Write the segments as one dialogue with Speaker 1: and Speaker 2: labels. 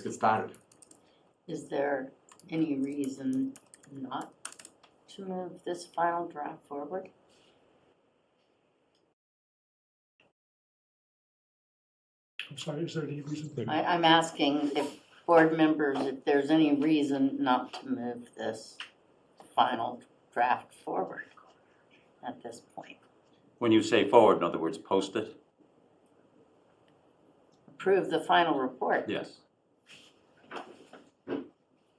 Speaker 1: Let's get started.
Speaker 2: Is there any reason not to move this final draft forward?
Speaker 3: I'm sorry, is there any reason?
Speaker 2: I, I'm asking if board members, if there's any reason not to move this final draft forward at this point.
Speaker 4: When you say forward, in other words, post it?
Speaker 2: Approve the final report.
Speaker 4: Yes.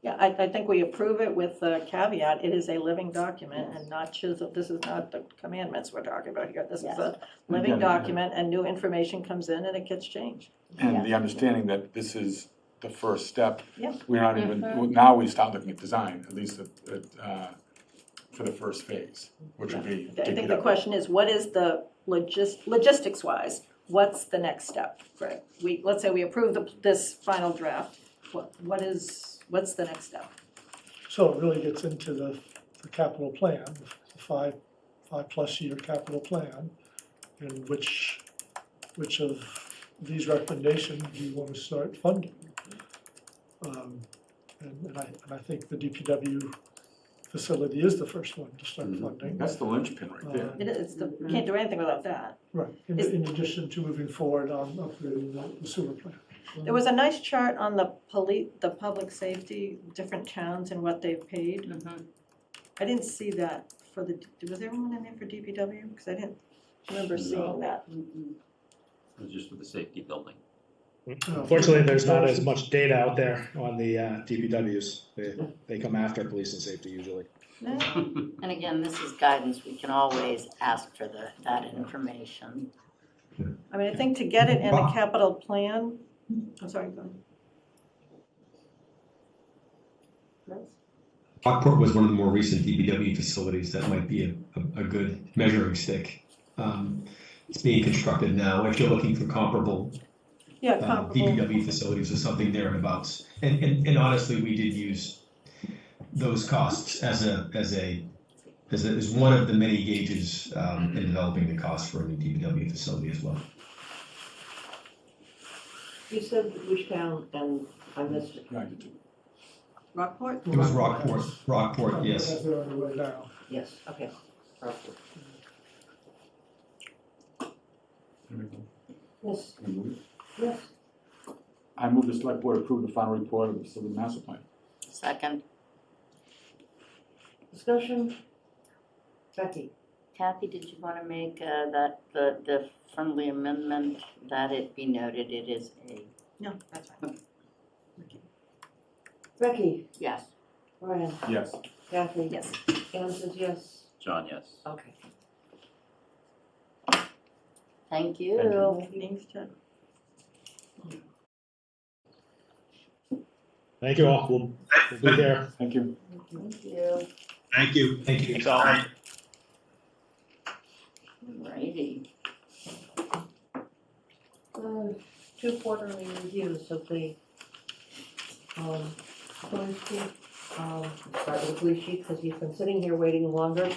Speaker 5: Yeah, I, I think we approve it with the caveat, it is a living document and not chiseled, this is not the commandments we're talking about here. This is a living
Speaker 1: Again, yeah.
Speaker 5: document and new information comes in and it gets changed.
Speaker 1: And the understanding that this is the first step.
Speaker 5: Yeah.
Speaker 1: We're not even, now we start looking at design, at least at- at, uh, for the first phase, which would be.
Speaker 5: I
Speaker 1: dig
Speaker 5: think
Speaker 1: it
Speaker 5: the
Speaker 1: up.
Speaker 5: question is, what is the logis, logistics wise, what's the next step? Right, we, let's say we approve the, this final draft, what, what is, what's the next step?
Speaker 3: So it really gets into the, the capital plan, the five, five-plus year capital plan, and which, which of these recommendations do you want to start funding? Um, And, and I, and I think the DPW facility is the first one to start
Speaker 6: Mm-hmm.
Speaker 4: Mhm.
Speaker 3: funding.
Speaker 1: That's the linchpin right there.
Speaker 5: It is, the- you can't do anything without that.
Speaker 3: Right, in,
Speaker 5: Is-
Speaker 3: in addition to moving forward on upgrading the- the sewer plant.
Speaker 5: There was a nice chart on the police, the public safety, different towns and what they've paid.
Speaker 2: Mhm.
Speaker 5: I didn't see that for the, was there one in there for DPW? Because I didn't remember
Speaker 4: No.
Speaker 5: seeing that.
Speaker 2: Mm-mm.
Speaker 4: It was just for the safety building.
Speaker 6: Unfortunately, there's not as much data out there on the uh, DPWs. They, they come after police and safety usually.
Speaker 5: No,
Speaker 2: And again, this is guidance, we can always ask for the, that information.
Speaker 5: I mean, I think to get it in the capital plan, I'm sorry, go ahead.
Speaker 7: Rockport was one of the more recent DBW facilities that might be a, a, a good measuring stick. Um, it's being constructed now. If you're looking for comparable
Speaker 5: yeah,
Speaker 7: uh,
Speaker 5: comparable.
Speaker 7: DBW facilities or something thereabouts, and, and and honestly, we did use those costs as a as a as, a, as one of the many gauges um, in developing the cost for a new DBW facility as well.
Speaker 8: You said which town, and I missed it.
Speaker 1: Right, it-
Speaker 5: Rockport?
Speaker 7: It was Rockport. Rockport, yes.
Speaker 3: As they're on the way now.
Speaker 8: Yes, okay. Yes,
Speaker 1: Can I move it?
Speaker 8: yes.
Speaker 1: I move the select board approve the final report of the facility master plan.
Speaker 2: Second,
Speaker 8: Discussion? Becky?
Speaker 2: Kathy, did you want to make uh, that, the, the friendly amendment that it be noted it is a?
Speaker 5: No, that's fine.
Speaker 8: Becky?
Speaker 2: Yes.
Speaker 8: Brian?
Speaker 1: Yes,
Speaker 8: Kathy?
Speaker 5: Yes.
Speaker 8: Anne says yes.
Speaker 4: John, yes.
Speaker 8: Okay.
Speaker 2: Thank
Speaker 1: Thank
Speaker 2: you.
Speaker 5: Well, meetings, Ted.
Speaker 6: Thank you all. We'll, we'll be there.
Speaker 1: thank you.
Speaker 2: Thank you.
Speaker 7: Thank you. Thank you.
Speaker 2: Righty.
Speaker 8: Uh, Two quarterly reviews of the, um, police chief. Um, start with the police chief, because he's been sitting here waiting longer,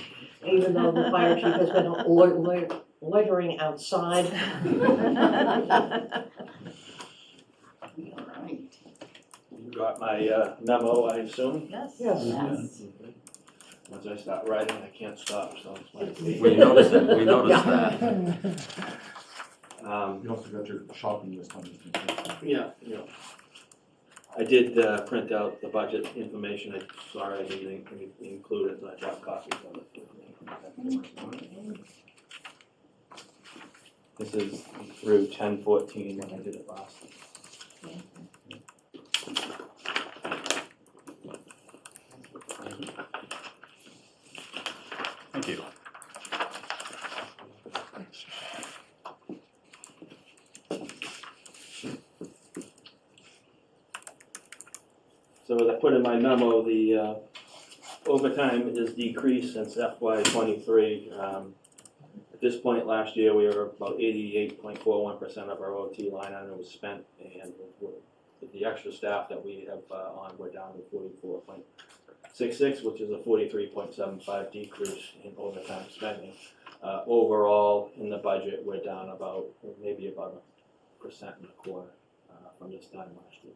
Speaker 8: even though the fire chief has been loit- loit- loitering outside.
Speaker 2: All right.
Speaker 9: You got my uh, memo, I assume?
Speaker 5: Yes.
Speaker 8: Yes.
Speaker 2: Yes.
Speaker 9: Once I start writing, I can't stop, so it's my.
Speaker 4: We noticed that, we noticed
Speaker 8: Yeah.
Speaker 4: that.
Speaker 9: Um,
Speaker 1: You also got your shopping list on this.
Speaker 9: Yeah, yeah. I did uh, print out the budget information, I'm sorry I didn't in- in- include it, and I brought copies of it. This is through ten fourteen when I did it last.
Speaker 4: Thank you.
Speaker 9: So as I put in my memo, the uh, overtime is decreased since FY twenty-three. Um, At this point last year, we were about eighty-eight point four one percent of our OT line item was spent, and with- with the extra staff that we have uh, on, we're down to forty-four point six six, which is a forty-three point seven five decrease in overtime spending. Uh, Overall, in the budget, we're down about, maybe about a percent and a quarter uh, from this time last year.